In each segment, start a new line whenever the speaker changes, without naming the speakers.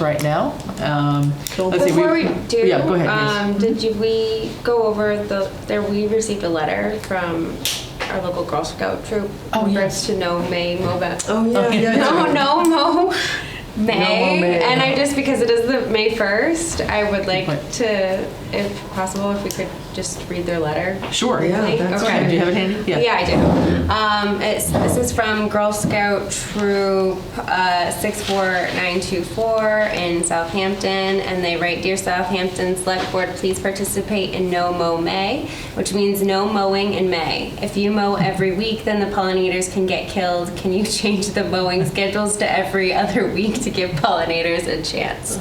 right now. Um, let's see,
Before we do,
Yeah, go ahead. yes.
um, did you, we go over the, there, we received a letter from our local Girl Scout troop.
Oh,
in
yeah.
regards to no May MOBA.
Oh, yeah,
Okay.
yeah.
No, no, Mo,
No Mo May.
May. And I just, because it is the May 1st, I would like
point.
to, if possible, if we could just read their letter.
Sure.
Yeah,
Okay.
that's
Okay,
Okay.
Do you have it handy?
Yeah, I do. Um, it's, this is from Girl Scout Troop uh, 64924 in Southampton, and they write Dear Southampton Select Board, please participate in No Mow May, which means no mowing in May. If you mow every week, then the pollinators can get killed. Can you change the mowing schedules to every other week to give pollinators a chance?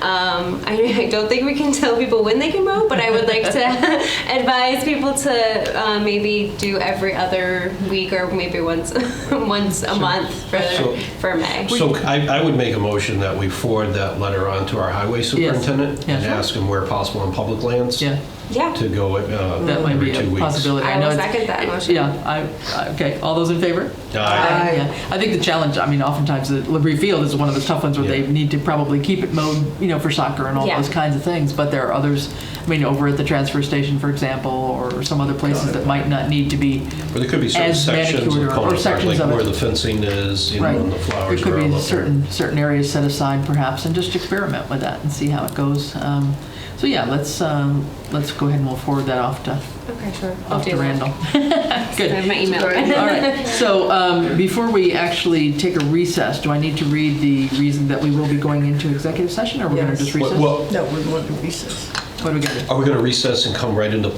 Um, I, I don't think we can tell people when they can mow, but I would like to advise people to uh, maybe do every other week or maybe once once a month for
So-
for May.
So I, I would make a motion that we forward that letter on to our highway superintendent
Yeah,
and
sure.
ask him where possible on public lands
Yeah,
yeah.
to go uh,
that might be
every two
a
weeks.
possibility.
I
know
will
it's-
second that motion.
Yeah, I- I, okay, all those in favor? Uh,
Aye.
Aye.
Yeah. I think the challenge, I mean, oftentimes the Labrie Field is one of the tough ones where they
Yeah.
need to probably keep it mowed, you know, for soccer and all
Yeah.
those kinds of things. But there are others, I mean, over at the transfer station, for example, or some other places that might not need to be.
But there could be certain
As
sections
manicured
of
or- or
Concord,
sections
like
of it.
where the fencing is, you know,
Right.
and the
There
flowers
could
are all
be
up there.
certain, certain areas set aside perhaps, and just experiment with that and see how it goes. Um, So yeah, let's, um, let's go ahead and we'll forward that off to,
Okay, sure. I'll
off
do
to
that.
Randall.
I
Good.
have my email.
All right, so um, before we actually take a recess, do I need to read the reason that we will be going into executive session, or we're going to
Yes.
just
Well-
recess? What
Well, uh,
No, we're going to recess.
do we got to do?
are we going to recess and come right into,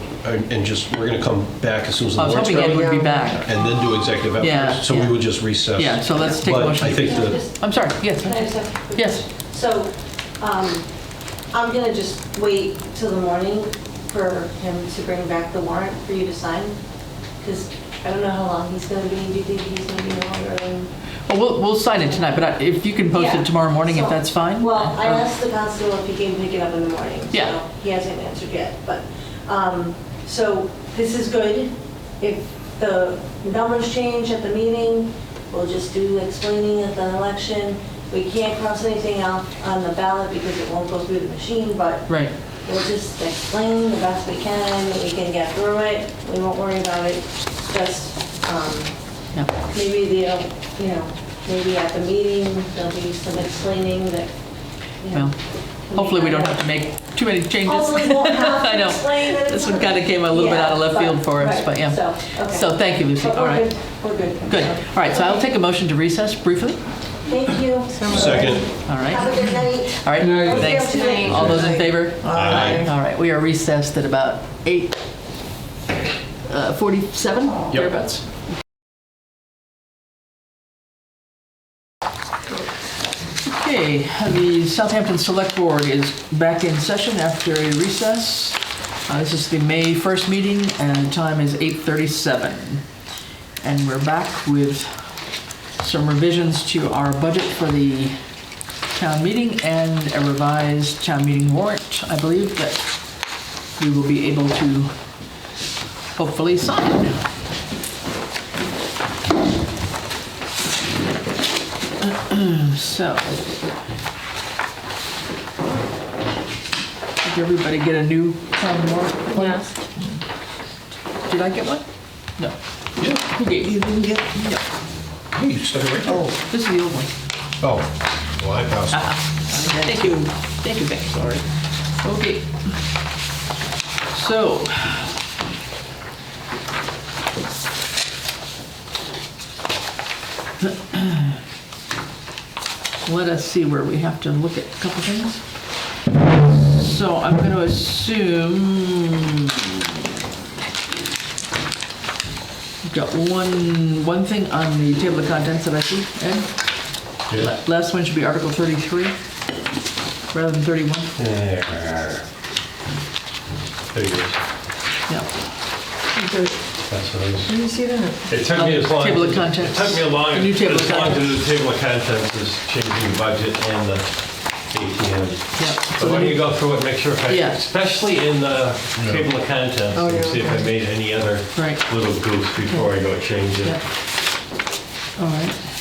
and just, we're going to come back as soon as the
Oh, I was
board's
hoping Ed
ready?
would be back.
And then do executive
Yeah,
afterwards? So we
yeah.
would just recess.
Yeah, so let's take a
But
motion.
I think
Can I
the,
just-
I'm sorry, yes,
can I just have a quick-
yes,
So, um, I'm gonna just wait till the morning for him to bring back the warrant for you to sign, because I don't know how long he's gonna be, do you think he's gonna be longer than?
well, Oh, we'll, we'll sign it tonight, but I- if you can post
Yeah.
it tomorrow morning, if
So-
that's fine?
Well, I
Uh,
asked the constable if he can pick it up in the morning. so
Yeah.
He hasn't answered yet, but, um, so this is good. If the numbers change at the meeting, we'll just do explaining at the election. We can't cross anything out on the ballot because it won't go through the machine, but
Right,
we'll just explain the best we can, we can get through it, we won't worry about it. Just, um,
yeah,
maybe they'll, you know, maybe at the meeting, there'll be some explaining that, you know.
well, hopefully we don't have to make too many changes.
Hopefully we won't have
I
to
know.
explain that
This
it's
one kind of came a little bit out of left
Yeah,
field for us,
right,
but yeah.
So, okay.
So thank you, Lucy,
But
all
we're
right,
good, We're good.
good. All right, so I'll take a motion to recess briefly,
Thank you.
second,
all
Have a
right?
good night.
All right,
Don't stay
thanks.
up tonight.
All those in favor?
Aye.
All right, we are recessed at about 8, uh, 47, thereabouts. Okay, the Southampton Select Board is back in session after a recess. Uh, This is the May 1st meeting, and the time is 8:37. And we're back with some revisions to our budget for the town meeting and a revised town meeting warrant, I believe, that we will be able to hopefully sign. So. Did everybody get a new town warrant?
Yes.
Did I get one? No.
Yeah.
Who gave you?
You didn't get,
hey, you said it right there.
oh,
This is the old one.
Oh, well, I passed.
Thank you, thank you, Becky, sorry. Okay. So. Let us see where we have to look at a couple things. So I'm going to assume we've got one, one thing on the table of contents that I see, Ed?
Yeah.
La- Last one should be Article 33, rather than 31.
There There you go.
Yeah.
That's what I was.
did you see that?
It took me as long.
Oh, Table of contents.
It took me a long,
The new table of
as long
contents.
as the table of contents is changing the budget and the ATM.
Yeah.
But
So
why
the
don't you
new-
go through it, make sure, if I-
Yeah.
especially in the table of contents,
Oh,
and
yeah,
see if I
okay.
made any other
Right.
little goofs before I go change it.
Yeah. All right.